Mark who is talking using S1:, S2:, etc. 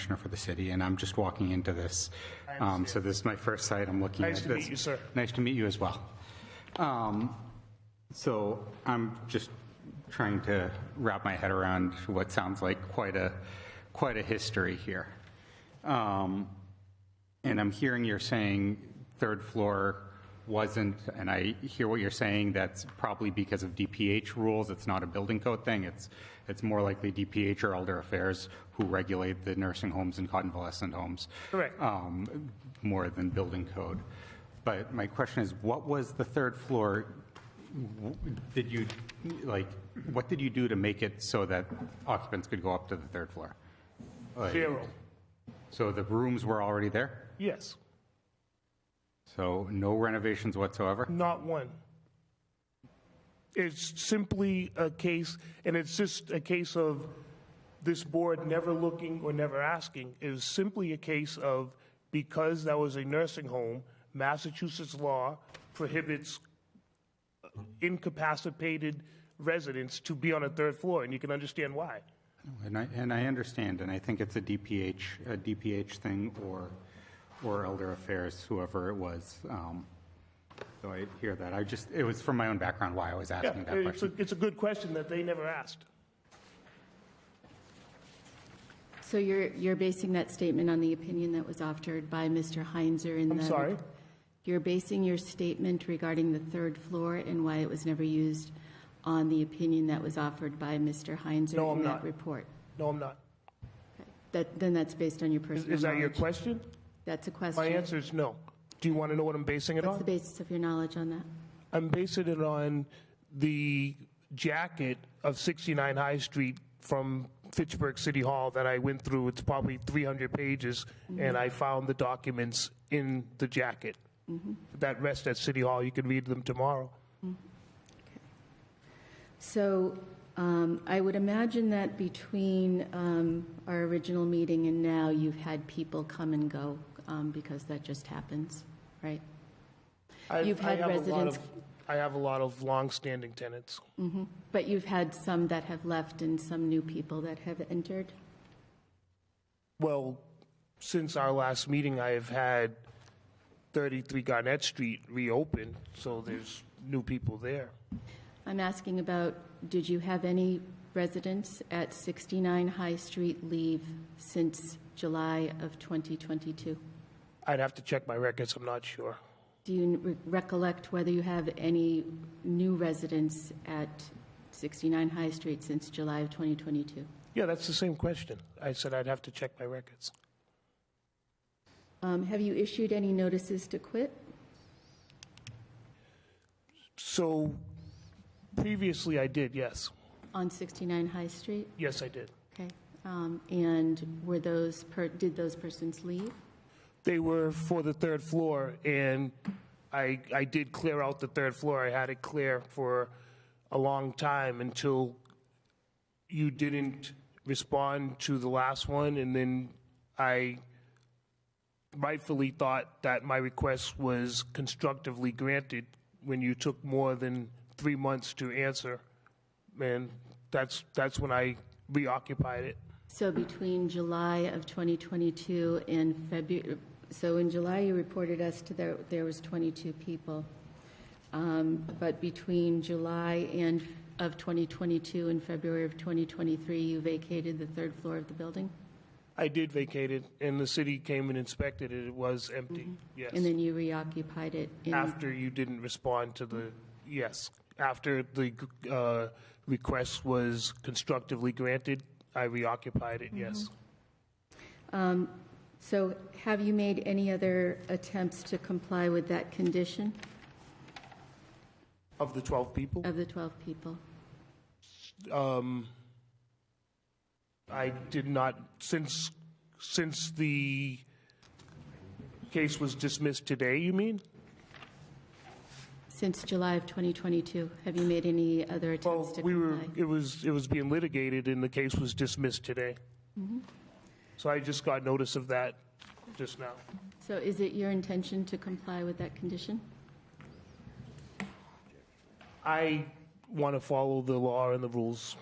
S1: commissioner for the city, and I'm just walking into this. Um, So this is my first site I'm looking at.
S2: Nice to
S1: this.
S2: meet you, sir.
S1: Nice to meet you as well. Um, So I'm just trying to wrap my head around what sounds like quite a, quite a history here. Um, And I'm hearing you're saying third floor wasn't, and I hear what you're saying, that's probably because of DPH rules, it's not a building code thing, it's, it's more likely DPH or Elder Affairs who regulate the nursing homes and convalescent homes.
S2: Correct.
S1: um, More than building code. But my question is, what was the third floor, w- did you, like, what did you do to make it so that occupants could go up to the third floor? Like,
S2: Zero.
S1: So the rooms were already there?
S2: Yes,
S1: So no renovations whatsoever?
S2: not one. It's simply a case, and it's just a case of this board never looking or never asking. It is simply a case of because that was a nursing home, Massachusetts law prohibits incapacitated residents to be on a third floor, and you can understand why.
S1: And I, and I understand, and I think it's a DPH, a DPH thing or, or Elder Affairs, whoever it was. um, So I hear that. I just, it was from my own background why I was
S2: Yeah,
S1: asking that
S2: it's a,
S1: question.
S2: it's a good question that they never asked.
S3: So you're, you're basing that statement on the opinion that was offered by Mr. Heinzer in the...
S2: I'm sorry?
S3: You're basing your statement regarding the third floor and why it was never used on the opinion that was offered by Mr. Heinzer
S2: No, I'm
S3: in that
S2: not.
S3: report?
S2: No, I'm not.
S3: That, then that's based on your
S2: Is-
S3: personal
S2: Is that your
S3: knowledge?
S2: question?
S3: That's a question.
S2: My answer is no. Do you want to know what I'm basing it
S3: What's the
S2: on?
S3: basis of your knowledge on that?
S2: I'm basing it on the jacket of 69 High Street from Fitchburg City Hall that I went through. It's probably 300 pages, and I found the documents in the jacket that rest at City Hall. You can read them tomorrow.
S3: So um, I would imagine that between um, our original meeting and now, you've had people come and go um, because that just happens, right?
S2: I've-
S3: You've had
S2: I have a lot
S3: residents-
S2: of- I have a lot of longstanding tenants.
S3: But you've had some that have left and some new people that have entered?
S2: Well, since our last meeting, I have had 33 Garnett Street reopened, so there's new people there.
S3: I'm asking about, did you have any residents at 69 High Street leave since July of 2022?
S2: I'd have to check my records, I'm not sure.
S3: Do you re- recollect whether you have any new residents at 69 High Street since July of 2022?
S2: Yeah, that's the same question. I said I'd have to check my records.
S3: Um, Have you issued any notices to quit?
S2: So previously I did, yes.
S3: On 69 High Street?
S2: Yes, I did.
S3: Okay. Um, And were those, per- did those persons leave?
S2: They were for the third floor, and I, I did clear out the third floor. I had it clear for a long time until you didn't respond to the last one, and then I rightfully thought that my request was constructively granted when you took more than three months to answer. And that's, that's when I reoccupied it.
S3: So between July of 2022 and February, so in July, you reported us to there, there was 22 people. Um, But between July and, of 2022 and February of 2023, you vacated the third floor of the building?
S2: I did vacate it, and the city came and inspected it. It was empty, yes.
S3: And then you reoccupied it in?
S2: After you didn't respond to the, yes. After the uh, request was constructively granted, I reoccupied it, yes.
S3: So have you made any other attempts to comply with that condition
S2: Of the 12 people,
S3: of the 12 people?
S2: um, I did not, since, since the case was dismissed today, you mean?
S3: Since July of 2022, have you made any other attempts
S2: Well,
S3: to comply?
S2: we were, it was, it was being litigated, and the case was dismissed today. So I just got notice of that just now.
S3: So is it your intention to comply with that condition?
S2: I want to follow the law and the rules.